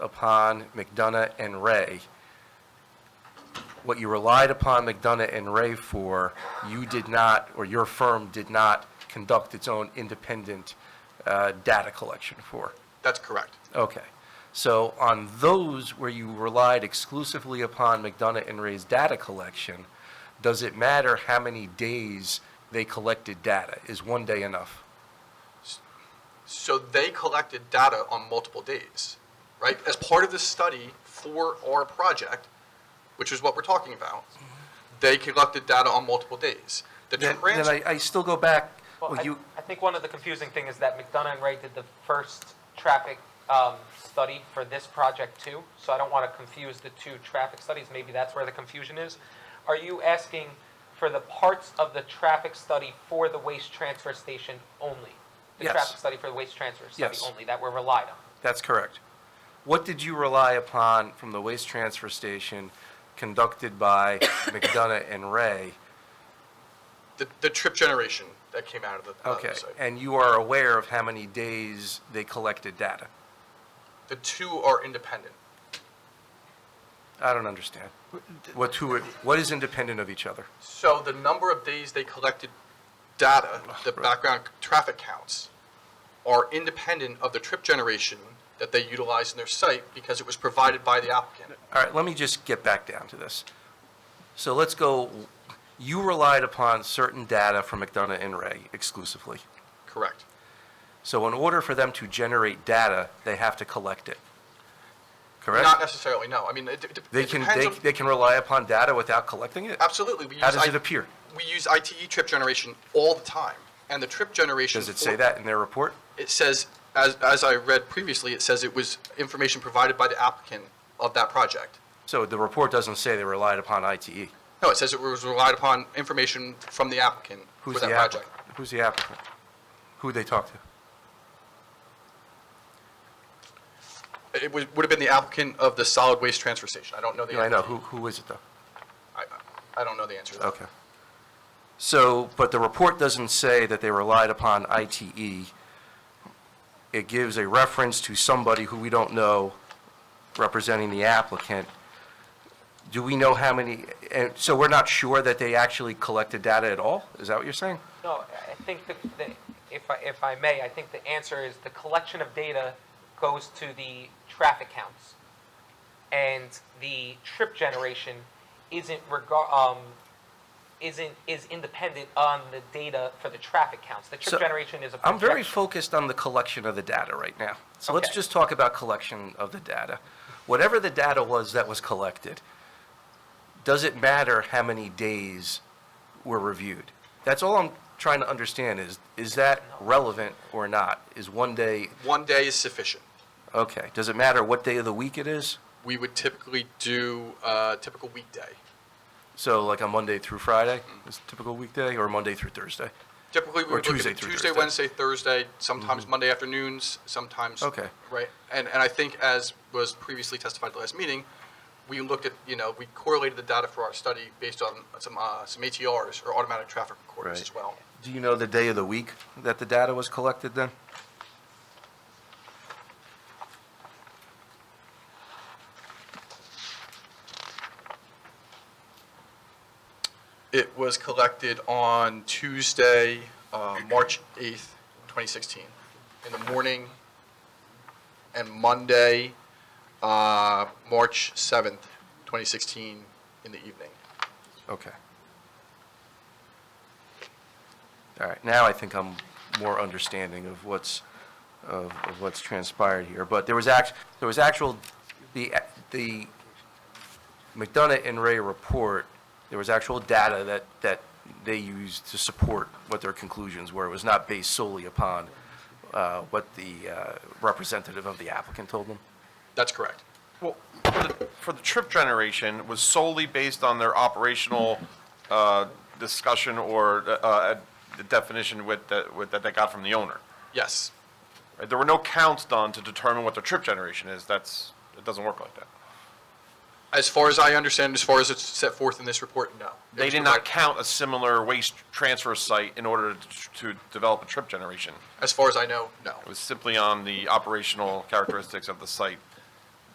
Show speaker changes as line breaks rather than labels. upon McDonough and Ray. What you relied upon McDonough and Ray for, you did not, or your firm did not conduct its own independent uh, data collection for.
That's correct.
Okay. So on those where you relied exclusively upon McDonough and Ray's data collection, does it matter how many days they collected data? Is one day enough?
So they collected data on multiple days, right? As part of this study for our project, which is what we're talking about, they collected data on multiple days. The
Then then
transfer,
I, I still go back,
Well,
well,
I,
you,
I think one of the confusing thing is that McDonough and Ray did the first traffic um, study for this project too, so I don't want to confuse the two traffic studies. Maybe that's where the confusion is. Are you asking for the parts of the traffic study for the waste transfer station only? The
Yes.
traffic study for the waste transfer study
Yes.
only that were relied on?
that's correct. What did you rely upon from the waste transfer station conducted by McDonough and Ray?
the, the trip generation that came out of the, out of the
Okay,
site.
and you are aware of how many days they collected data?
The two are independent.
I don't understand. What two, are- what is independent of each other?
So the number of days they collected data,
Oh,
the background traffic counts, are independent of the trip generation that they utilized in their site because it was provided by the applicant.
All right, let me just get back down to this. So let's go, you relied upon certain data from McDonough and Ray exclusively.
Correct.
So in order for them to generate data, they have to collect it.
Not
Correct?
necessarily, no. I mean, it, it-
They
it
can,
depends
they,
on-
they can rely upon data without collecting it?
Absolutely. we
How
use
does
I-
it appear?
We use ITE trip generation all the time, and the trip generation.
Does it
for-
say that in their report?
It says, as, as I read previously, it says it was information provided by the applicant of that project.
So the report doesn't say they relied upon E. ITE.
No, it says it was relied upon information from the applicant for
Who's
that
the
project.
applicant? Who's the applicant? Who'd they talk to?
It would, would have been the applicant of the solid waste transfer station. I don't know the.
Yeah, I know,
answer.
who, who is it though?
I, I don't know the answer to that.
Okay. So, but the report doesn't say that they relied upon ITE. It gives a reference to somebody who we don't know representing the applicant. Do we know how many, and so we're not sure that they actually collected data at all? Is that what you're saying?
No, I think the, the, if I, if I may, I think the answer is the collection of data goes to the traffic counts. And the trip generation isn't regard, um, isn't, is independent on the data for the traffic counts. The
So,
trip generation is a
I'm very
projection.
focused on the collection of the data right now. So let's
Okay.
just talk about collection of the data. Whatever the data was that was collected, does it matter how many days were reviewed? That's all I'm trying to understand is, is that relevant or not? Is one day,
One day is sufficient.
okay, does it matter what day of the week it is?
We would typically do a typical weekday.
So like a Monday through Friday is typical weekday or Monday through Thursday?
Typically, we
Or
would look
Tuesday
at
through Thursday.
Tuesday,
Mm-hmm.
Wednesday, Thursday, sometimes Monday afternoons, sometimes.
Okay.
Right, and, and I think as was previously testified at the last meeting, we looked at, you know, we correlated the data for our study based on some, uh, some ATRs or automatic traffic recorders
Right.
as well.
Do you know the day of the week that the data was collected then?
It was collected on Tuesday, uh, March 8th, 2016, in the morning, and Monday, uh, March 7th, 2016, in the evening.
Okay. All right, now I think I'm more understanding of what's, of of what's transpired here. But there was act, there was actual, the, the McDonough and Ray report, there was actual data that, that they used to support what their conclusions were. It was not based solely upon uh, what the uh, representative of the applicant told them.
That's correct.
Well, for the, for the trip generation was solely based on their operational uh, discussion or uh, uh, the definition with, the- with, that they got from the owner.
Yes.
right? There were no counts done to determine what the trip generation is. That's, it doesn't work like that.
As far as I understand, as far as it's set forth in this report, no. It
They
was
did not
provided-
count a similar waste transfer site in order to, to develop a trip generation.
As far as I know, no.
It was simply on the operational characteristics of the site